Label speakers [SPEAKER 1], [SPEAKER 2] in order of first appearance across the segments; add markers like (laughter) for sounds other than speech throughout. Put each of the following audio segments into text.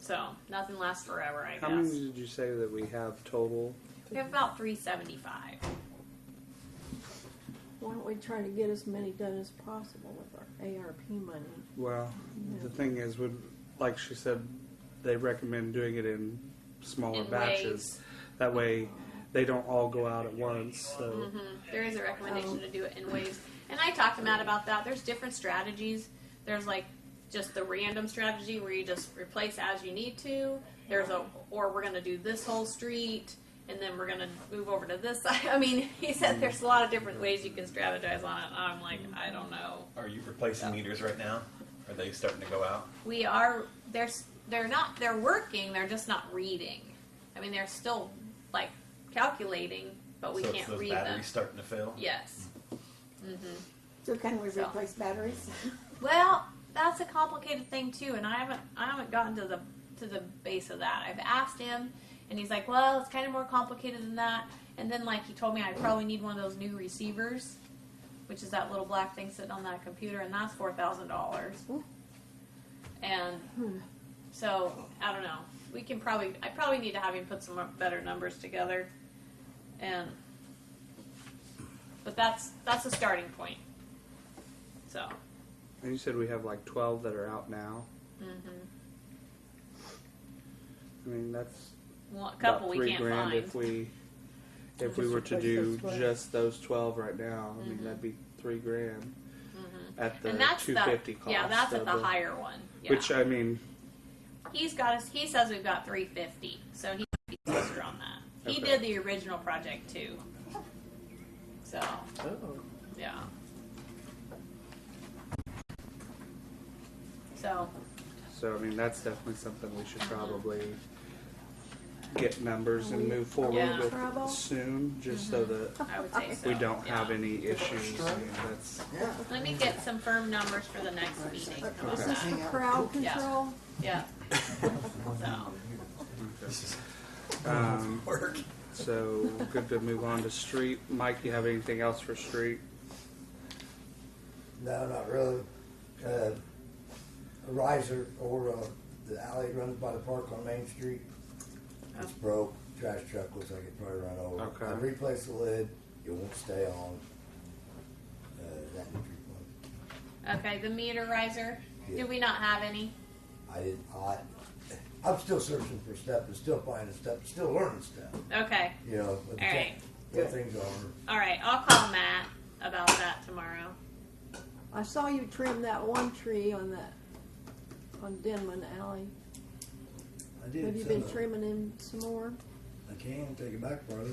[SPEAKER 1] So nothing lasts forever, I
[SPEAKER 2] How
[SPEAKER 1] guess.
[SPEAKER 2] many did you say that we have total?
[SPEAKER 1] We have about 375.
[SPEAKER 3] Why don't we try to get as many done as possible with our ARP money?
[SPEAKER 2] Well, the thing is, would like she said, they recommend doing it in smaller
[SPEAKER 1] In
[SPEAKER 2] batches.
[SPEAKER 1] waves.
[SPEAKER 2] That way, they don't all go out at once. So
[SPEAKER 1] Mm-hmm. There is a recommendation to do it in waves. And I talked to Matt about that. There's different strategies. There's like just the random strategy where you just replace as you need to. There's a or we're gonna do this whole street and then we're gonna move over to this (laughs) side. I mean, he said there's a lot of different ways you can strategize on it. I'm like, I don't know.
[SPEAKER 4] Are you replacing meters right now? Are they starting to go out?
[SPEAKER 1] we are they're they're not they're working they're just not reading i mean they're still like calculating but we
[SPEAKER 4] so
[SPEAKER 1] can't
[SPEAKER 4] it's those
[SPEAKER 1] read
[SPEAKER 4] batteries
[SPEAKER 1] them
[SPEAKER 4] starting to fail.
[SPEAKER 1] yes
[SPEAKER 5] So can we
[SPEAKER 1] So.
[SPEAKER 5] replace
[SPEAKER 3] (laughs)
[SPEAKER 5] batteries?
[SPEAKER 1] well that's a complicated thing too and i haven't i haven't gotten to the to the base of that i've asked him and he's like well it's kind of more complicated than that and then like he told me i probably need one of those new receivers which is that little black thing sitting on that computer and that's four thousand dollars and So I don't know. We can probably. I probably need to have him put some more- better numbers together, and but that's that's a starting point. So
[SPEAKER 2] and you said we have like twelve that are out now.
[SPEAKER 1] Mm-hmm.
[SPEAKER 2] I mean, that's
[SPEAKER 1] one, a couple
[SPEAKER 2] about
[SPEAKER 1] we
[SPEAKER 2] three
[SPEAKER 1] can't
[SPEAKER 2] grand
[SPEAKER 1] find.
[SPEAKER 2] if we if
[SPEAKER 5] Just
[SPEAKER 2] we were to
[SPEAKER 5] replace
[SPEAKER 2] do
[SPEAKER 5] those 12.
[SPEAKER 2] just those twelve right now. I mean, that'd be three grand at
[SPEAKER 1] Mm-hmm.
[SPEAKER 2] the
[SPEAKER 1] and that's
[SPEAKER 2] two
[SPEAKER 1] the
[SPEAKER 2] fifty cost.
[SPEAKER 1] yeah that's at
[SPEAKER 2] of
[SPEAKER 1] the higher one. Yeah.
[SPEAKER 2] Which uh, I mean,
[SPEAKER 1] he's got us. He says we've got three fifty, so he might be closer on that. He
[SPEAKER 2] Okay.
[SPEAKER 1] did the original project too. So
[SPEAKER 2] oh,
[SPEAKER 1] yeah. So
[SPEAKER 2] So I mean, that's definitely something we should probably get numbers and move forward
[SPEAKER 1] Yeah.
[SPEAKER 2] with
[SPEAKER 3] Trouble.
[SPEAKER 2] soon, just so that
[SPEAKER 1] I would say so.
[SPEAKER 2] we don't
[SPEAKER 1] yeah.
[SPEAKER 2] have any issues. I mean, that's
[SPEAKER 6] Yeah.
[SPEAKER 1] Let me get some firm numbers for the next meeting. How about
[SPEAKER 3] Is this
[SPEAKER 1] that?
[SPEAKER 3] for crowd
[SPEAKER 1] Yeah.
[SPEAKER 3] control?
[SPEAKER 1] Yeah. So,
[SPEAKER 4] This is
[SPEAKER 2] um,
[SPEAKER 4] work.
[SPEAKER 2] so good to move on to street. Mike, you have anything else for street?
[SPEAKER 6] No, not really. Uh, a riser or uh, the alley that runs by the park on Main Street. It's broke. Trash truck looks like it probably run over.
[SPEAKER 2] Okay.
[SPEAKER 6] I replaced the lid. It won't stay on. Uh, that would be one.
[SPEAKER 1] okay, the meter riser,
[SPEAKER 6] Yeah.
[SPEAKER 1] do we not have any?
[SPEAKER 6] I didn't. I, I'm still searching for stuff and still finding stuff, and still learning stuff.
[SPEAKER 1] Okay,
[SPEAKER 6] You know, but the
[SPEAKER 1] All
[SPEAKER 6] thing-
[SPEAKER 1] right.
[SPEAKER 6] what things are.
[SPEAKER 1] alright, I'll call Matt about that tomorrow.
[SPEAKER 3] I saw you trim that one tree on that, on Denman Alley.
[SPEAKER 6] I did.
[SPEAKER 3] Have you
[SPEAKER 6] some
[SPEAKER 3] been
[SPEAKER 6] of it.
[SPEAKER 3] trimming him some more?
[SPEAKER 6] I can take it back farther.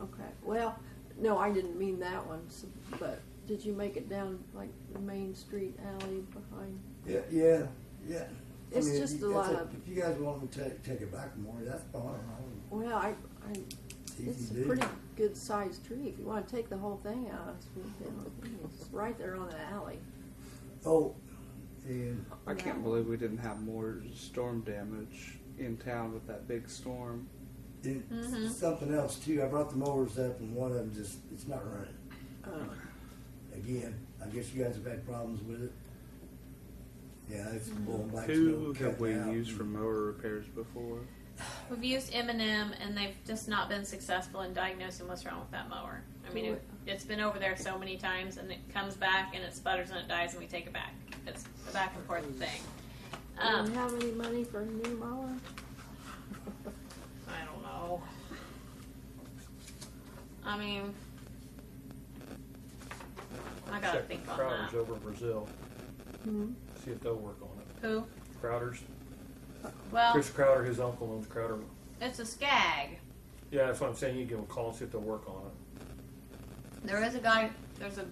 [SPEAKER 3] Okay, well, no, I didn't mean that one, s- but did you make it down like the Main Street alley behind?
[SPEAKER 6] Yeah, yeah, yeah.
[SPEAKER 3] It's
[SPEAKER 6] if
[SPEAKER 3] just
[SPEAKER 6] you-
[SPEAKER 3] a
[SPEAKER 6] that's
[SPEAKER 3] lot
[SPEAKER 6] it.
[SPEAKER 3] of-
[SPEAKER 6] If you guys want me to take, take it back more, that's fine. I mean,
[SPEAKER 3] Well, I, I,
[SPEAKER 6] it's
[SPEAKER 3] it's
[SPEAKER 6] easy
[SPEAKER 3] a
[SPEAKER 6] to do.
[SPEAKER 3] pretty good sized tree. If you wanna take the whole thing out, it's, you know, it's right there on the alley.
[SPEAKER 6] Oh, and
[SPEAKER 2] I can't believe we didn't have more storm damage in town with that big storm.
[SPEAKER 6] it,
[SPEAKER 3] Mm-hmm.
[SPEAKER 6] something else too. I brought the mowers up, and one of them just—it's not running.
[SPEAKER 3] Oh.
[SPEAKER 6] Again, I guess you guys have had problems with it. Yeah, it's
[SPEAKER 3] Mm-hmm.
[SPEAKER 6] blowing back.
[SPEAKER 2] Who
[SPEAKER 6] snow,
[SPEAKER 2] have
[SPEAKER 6] cutting
[SPEAKER 2] we
[SPEAKER 6] out.
[SPEAKER 2] used for mower repairs before?
[SPEAKER 1] We've used M and M and they've just not been successful in diagnosing what's wrong with that mower. I mean, it- it's been over there so many times and it comes back and it sputters and it dies and we take it back. It's a back and forth thing.
[SPEAKER 3] Do
[SPEAKER 1] Um,
[SPEAKER 3] you have any money for a new mower?
[SPEAKER 1] I don't know. I mean, I gotta
[SPEAKER 7] Check
[SPEAKER 1] think
[SPEAKER 7] with
[SPEAKER 1] on
[SPEAKER 7] Crowder's
[SPEAKER 1] that.
[SPEAKER 7] over in Brazil.
[SPEAKER 3] Hmm?
[SPEAKER 7] See if they'll work on it.
[SPEAKER 1] Who?
[SPEAKER 7] Crowder's.
[SPEAKER 1] Well,
[SPEAKER 7] Chris Crowder, his uncle owns Crowder.
[SPEAKER 1] it's a skag.
[SPEAKER 7] Yeah, that's what I'm saying. You give them a call and see if they'll work on it.
[SPEAKER 1] There is a guy. There's a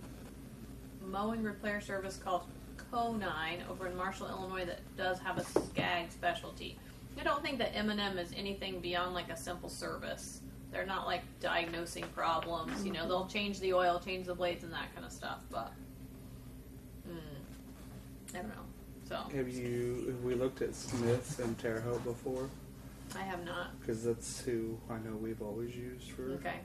[SPEAKER 1] mowing repair service called Co9 over in Marshall, Illinois, that does have a skag specialty. I don't think that M&M is anything beyond like a simple service. They're not like diagnosing problems. You know, they'll change the oil, change the blades, and that kind of stuff. But mm, I don't know. So
[SPEAKER 2] Have you? Have we looked at Smiths and Terre Haute before?
[SPEAKER 1] I have not.
[SPEAKER 2] Because that's who I know we've always used for.
[SPEAKER 1] Okay.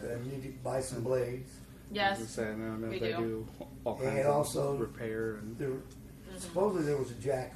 [SPEAKER 6] Uh, you need to buy some blades.
[SPEAKER 2] I was
[SPEAKER 1] Yes.
[SPEAKER 2] saying, I don't know
[SPEAKER 1] we
[SPEAKER 2] if they
[SPEAKER 1] do.
[SPEAKER 2] do all
[SPEAKER 6] And
[SPEAKER 2] kinds of
[SPEAKER 6] also-
[SPEAKER 2] repair and
[SPEAKER 3] Mm-hmm.
[SPEAKER 6] There, supposedly there was a jack